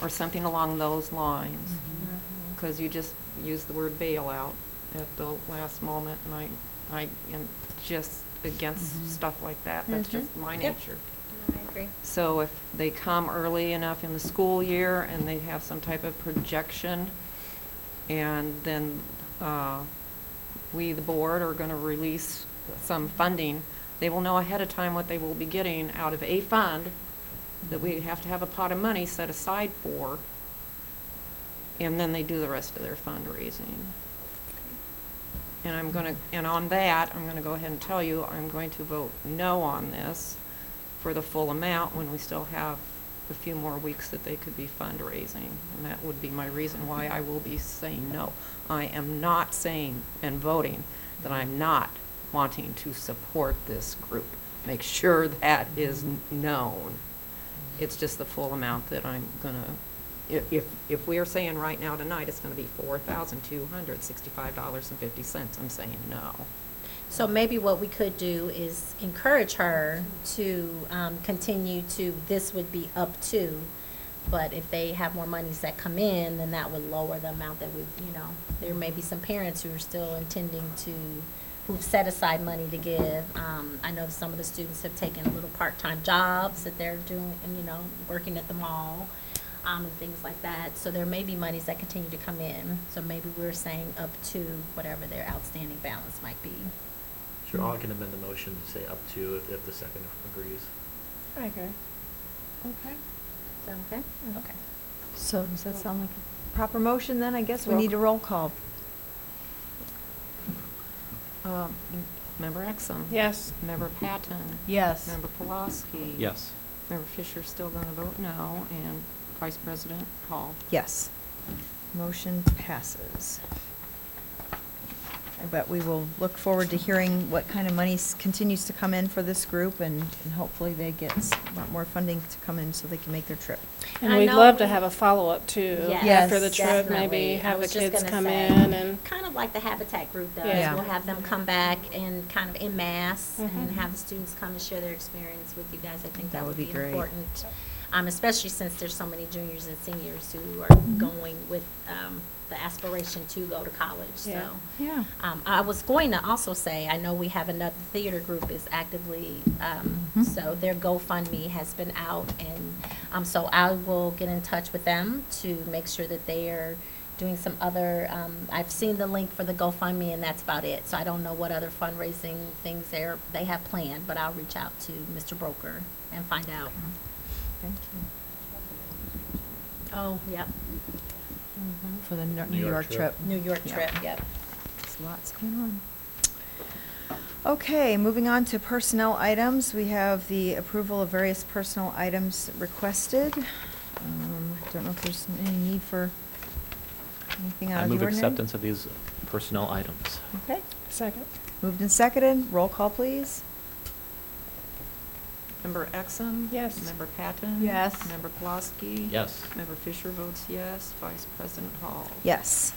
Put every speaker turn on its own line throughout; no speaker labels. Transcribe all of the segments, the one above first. or something along those lines. Because you just used the word bailout at the last moment, and I, I am just
Mhm.
against stuff like that. That's
Mhm.
just my
Yep.
nature.
No, I agree.
So if they come early enough in the school year and they have some type of projection, and then uh, we, the board, are going to release some funding, they will know ahead of time what they will be getting out of a fund that we have to have a pot of money set aside for, and then they do the rest of their fundraising. And I'm going to, and on that, I'm going to go ahead and tell you, I'm going to vote no on this for the full amount when we still have a few more weeks that they could be fundraising. And that would be my reason why I will be saying no. I am not saying and voting that I'm not wanting to support this group. Make sure that is n- known. It's just the full amount that I'm gonna, i- if, if we are saying right now tonight, it's gonna be four thousand two hundred sixty-five dollars and fifty cents, I'm saying no.
So maybe what we could do is encourage her to um, continue to, this would be up to, but if they have more monies that come in, then that would lower the amount that we, you know, there may be some parents who are still intending to, who've set aside money to give. Um, I know some of the students have taken little part-time jobs that they're doing, and, you know, working at the mall, um, and things like that. So there may be monies that continue to come in. So maybe we're saying up to whatever their outstanding balance might be.
Sure, I can amend the motion to say up to if, if the second agrees.
I agree. Okay.
Is that okay?
Mm.
Mm-hmm. Okay.
So does that sound like a proper motion then? I guess we
Roll
need a
call.
roll call.
Um, Member Exum?
Yes.
Member Patton?
Yes.
Member Pulaski?
Yes.
Member Fisher's still going to vote no, and Vice President Hall.
Yes. Motion passes. But we will look forward to hearing what kind of money s- continues to come in for this group, and and hopefully they get s- a lot more funding to come in so they can make their trip.
And
I
we'd
know-
love to have a follow-up too,
Yes,
after the
Yes,
trip,
definitely.
maybe
I
have the
was just
kids
gonna
come
say,
in and,
Kind of like the Habitat group does.
Yeah.
We'll have them come back and kind of en masse and
Mhm.
have the students come and share their experience with you guys. I think that, would be,
great.
important, um, especially since there's so many juniors and seniors who are
Mm-hmm.
going with um, the aspiration to go to college.
Yeah.
So.
Yeah.
Um, I was going to also say, I know we have another theater group is actively, um,
Mhm.
so their GoFundMe has been out and, um, so I will get in touch with them to make sure that they are doing some other, um, I've seen the link for the GoFundMe and that's about it. So I don't know what other fundraising things they're, they have planned, but I'll reach out to Mr. Broker and find out.
Thank you.
Oh, yep,
For the Mm-hmm. New New York trip.
New York
Yeah.
trip, yep.
There's lots going on. Okay, moving on to personnel items. We have the approval of various personnel items requested. Um, Don't know if there's any need for anything out
I
of the
move
ordinary.
acceptance of these personnel items.
Okay,
second.
moved and seconded. Roll call, please.
Member Exum?
Yes.
Member Patton?
Yes.
Member Pulaski?
Yes.
Member Fisher votes yes, Vice President Hall.
Yes.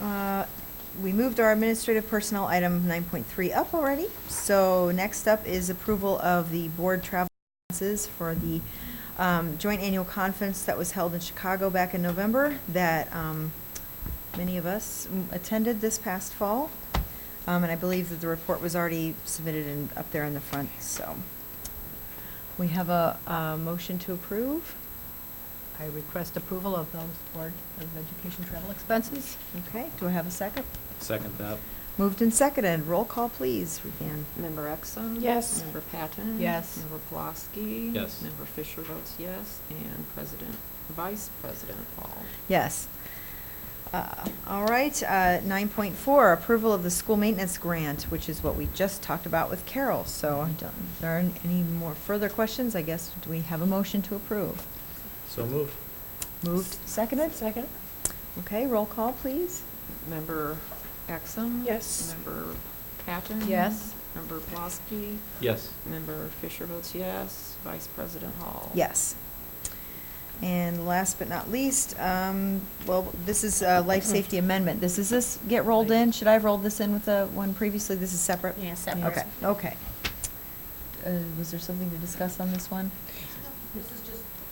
Uh, We moved our administrative personnel item 9.3 up already. So next up is approval of the board travel expenses for the um, joint annual conference that was held in Chicago back in November that um, many of us mm, attended this past fall. Um, And I believe that the report was already submitted and up there in the front, so. We have a uh, motion to approve.
I request approval of those Board of Education travel expenses.
Okay, do I have a second?
Second that.
Moved and seconded. Roll call, please, Ruthann.
Member Exum?
Yes.
Member Patton?
Yes.
Member Pulaski?
Yes.
Member Fisher votes yes, and President, Vice President Hall.
Yes. Uh, All right, uh, 9.4, approval of the school maintenance grant, which is what we just talked about with Carol. So I don't- if there aren't any more further questions, I guess, do we have a motion to approve?
So moved.
Moved, seconded?
Second.
Okay, roll call, please.
Member Exum?
Yes.
Member Patton?
Yes.
Member Pulaski?
Yes.
Member Fisher votes yes, Vice President Hall.
Yes. And last but not least, um, well, this is a life
Mm-hmm.
safety amendment. This, is this get rolled in? Should I have rolled this in with the one previously? This is separate?
Yeah, separate.
Okay, okay. Uh, Was there something to discuss on this one?
This is